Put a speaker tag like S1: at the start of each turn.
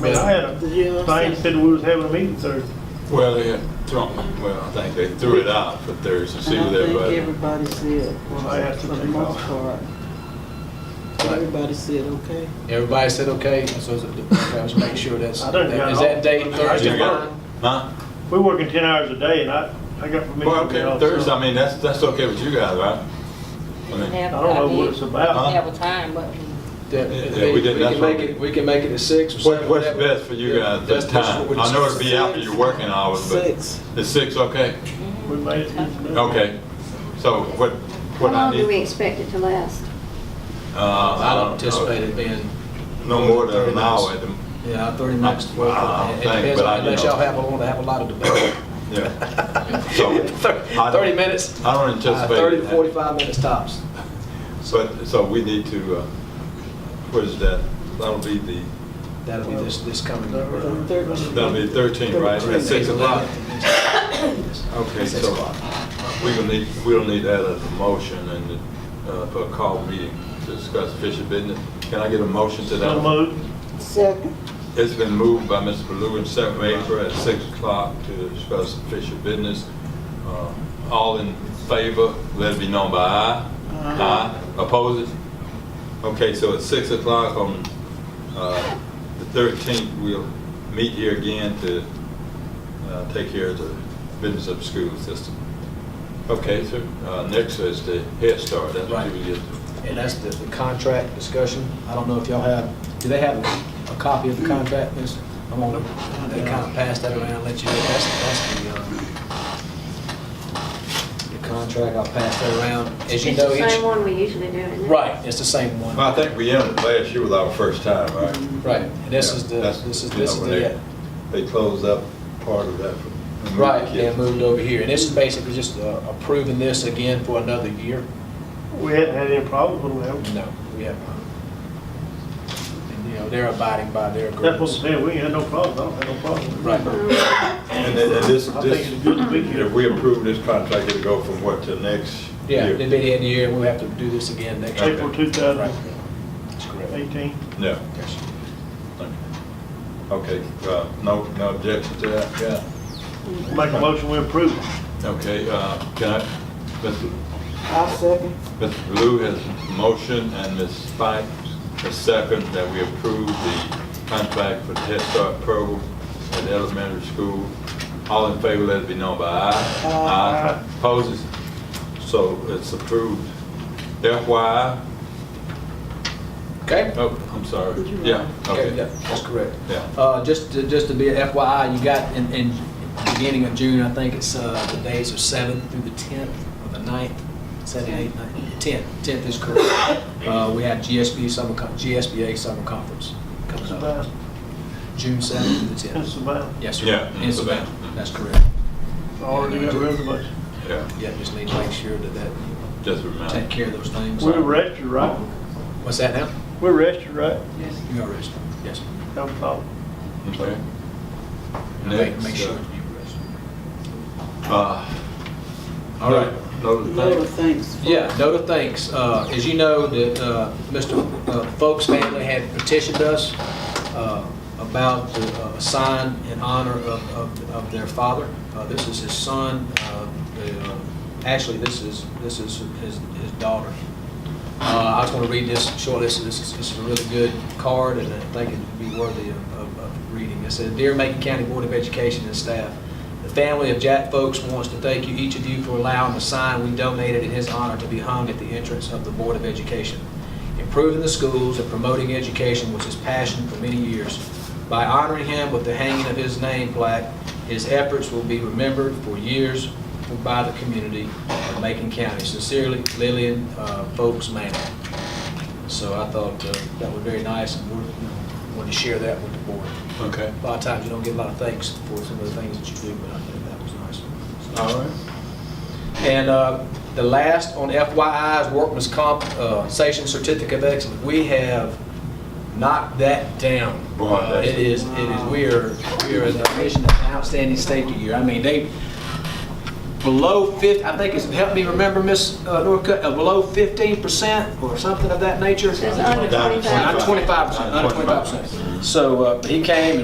S1: I mean, I had a
S2: Yeah.
S1: thing said we was having a meeting Thursday.
S3: Well, they had thrown, well, I think they threw it out for Thursday, see
S2: And
S3: what
S2: I think
S3: everybody.
S2: everybody said, well,
S1: I have to
S2: for the
S1: take
S2: most
S1: off.
S2: part, everybody said, okay.
S4: Everybody said okay, so is it- let's make sure that's,
S1: I done got
S4: is
S1: all-
S4: that date
S1: I
S4: Thursday?
S1: got-
S4: work?
S3: Huh?
S1: We working ten hours a day and I, I got permission.
S3: Well,
S1: to get
S3: okay,
S1: off.
S3: Thursday, I mean, that's, that's okay with you guys, right? I mean,
S1: I don't know what it's about.
S5: Have a time, but
S4: That-
S3: Yeah,
S4: that-
S3: yeah, we did- that's
S4: can
S3: what
S4: make
S3: we-
S4: it, we can make it at six or
S3: What,
S4: something.
S3: what's
S4: That-
S3: best for you
S4: yeah,
S3: guys, the
S4: that's- that's what
S3: time?
S4: we-
S3: I know it'd be after
S2: Six.
S3: your working hours, but
S2: Six.
S3: is six okay?
S1: We made it.
S3: Okay, so what,
S6: How
S3: what I
S6: long do we
S3: need?
S6: expect it to last?
S3: Uh,
S4: I don't
S3: know.
S4: anticipate it being,
S3: No more than an hour at the,
S4: yeah, thirty minutes.
S3: I don't
S4: It
S3: think,
S4: depends,
S3: but I- you
S4: unless
S3: know.
S4: y'all have, want to have a lot of debate. Uh,
S3: yeah. So, I-
S4: Thirty minutes,
S3: I don't
S4: uh,
S3: anticipate.
S4: thirty to
S3: that.
S4: forty-five minutes tops.
S3: But, so we need to, uh, what is that? That'll be the,
S4: That'll be this, this coming.
S2: The third-
S3: that'll be 13, right? At 6 o'clock? Okay,
S4: Six
S3: so
S4: o'clock.
S3: we gonna need, we'll need that as a motion and uh, for a call meeting to discuss official business. Can I get a motion to
S1: So
S3: that?
S1: moved.
S2: Second,
S3: It's been moved by Mr. Baloo and second by April at 6 o'clock to discuss official business. Uh, All in favor, let it be known by aye. Aye. Opposed? Okay, so at 6 o'clock on uh, the 13th, we'll meet here again to uh, take care of the business of the school system. Okay, so uh, next is the Head Start. That's what
S4: Right.
S3: you get.
S4: And that's the, the contract discussion. I don't know if y'all have, do they have a copy of the contract? Miss? I'm gonna, they kind of pass that around, let you, that's, that's the, um, the contract, I'll pass that around. As you
S6: It's
S4: know,
S6: the same
S4: each,
S6: one we usually do, isn't it?
S4: right, it's the same
S3: Well,
S4: one.
S3: I think we ended last year with our first time, right?
S4: Right, and this is the,
S3: That's-
S4: this is,
S3: you
S4: this
S3: know,
S4: is
S3: when they-
S4: the, uh,
S3: They closed up part of that. from- from the
S4: right,
S3: kids.
S4: and moved over here. And this is basically just uh, approving this again for another year.
S1: We hadn't had any problems with them.
S4: No, we have not. And, you know, they're abiding by their
S1: That's what I'm
S4: agreements.
S1: saying. We ain't had no problems. I don't have no problem.
S4: Right.
S3: And then and this,
S1: I think
S3: this,
S1: it's good to be here.
S3: if we approve this contract, it'll go from what to next
S4: Yeah,
S3: year?
S4: it'd be the end of the year, and we'll have to do this again next year.
S1: April two
S4: Right.
S1: thousand
S4: That's correct.
S1: eighteen.
S3: No. Okay, uh, no, no objection to that? Yeah.
S1: Make a motion, we approve. it.
S3: Okay, uh, can I, Mr.
S2: I second.
S3: Mr. Blue has motion and Ms. Spike has second that we approve the contract for the Head Start program at the elementary school. All in favor, let it be known by aye. Aye. Opposes? So it's approved. FYI,
S4: Okay?
S3: oh, I'm sorry. Yeah,
S4: Okay, yeah,
S3: okay.
S4: That's correct.
S3: Yeah.
S4: Uh, just to, just to be a FYI, you got in, in beginning of June, I think it's, uh, the days are seventh through the tenth, or the ninth, seven, eight, nine, tenth, tenth is correct. Uh, we have GSB summer, con- GSBA summer conference coming up,
S1: Savannah,
S4: June seventh through the
S1: in
S4: tenth.
S1: Savannah.
S4: Yes, sir.
S3: Yeah, in
S4: In
S3: Savannah.
S4: Savannah, that's correct.
S1: Already got rid of a bunch.
S3: Yeah,
S4: Yeah, just need to make sure that that,
S3: just
S4: take
S3: remind.
S4: care of those things.
S1: We're registered, right?
S4: What's that now?
S1: We're registered, right?
S4: You are arrested, yes.
S1: No problem.
S3: Okay.
S4: Make,
S3: Next,
S4: make sure
S3: uh,
S4: you arrest.
S3: Uh, All right. No,
S2: Lord,
S3: thank-
S2: thanks. for-
S4: Yeah, note of thanks. Uh, As you know, that uh, Mr. uh, Folks family had petitioned us uh, about the uh, sign in honor of- of of their father. Uh, This is his son. uh, the, uh, Actually, this is, this is his his daughter. Uh, I was going to read this shortly. This is, this is a really good card, and I think it'd be worthy of, of- of reading. It said, "Dear Macon County Board of Education and staff, the family of Jack Folks wants to thank you, each of you, for allowing the sign we donated in his honor to be hung at the entrance of the Board of Education. Improving the schools and promoting education was his passion for many years. By honoring him with the hanging of his name plaque, his efforts will be remembered for years by the community of Macon County. Sincerely, Lillian uh, Folks Manning. So I thought uh, that was very nice, and we're- you know, wanted to share that with the board.
S3: Okay.
S4: A lot of times, you don't get a lot of thanks for some of the things that you do, but I think that was nice.
S3: All right.
S4: And uh, the last on FYI's workman's comp, uh, station certificate of excellence, we have knocked that down.
S3: Boy,
S4: Uh,
S3: that's-
S4: It is, it is, we are, we are in the mission of outstanding safety year. I mean, they, below 50, I think it's, help me remember, Miss uh, Norcutt, uh, below 15% or something of that nature?
S5: It's under
S3: Down to
S5: 25.
S4: Not 25%, under 25%. So uh, he came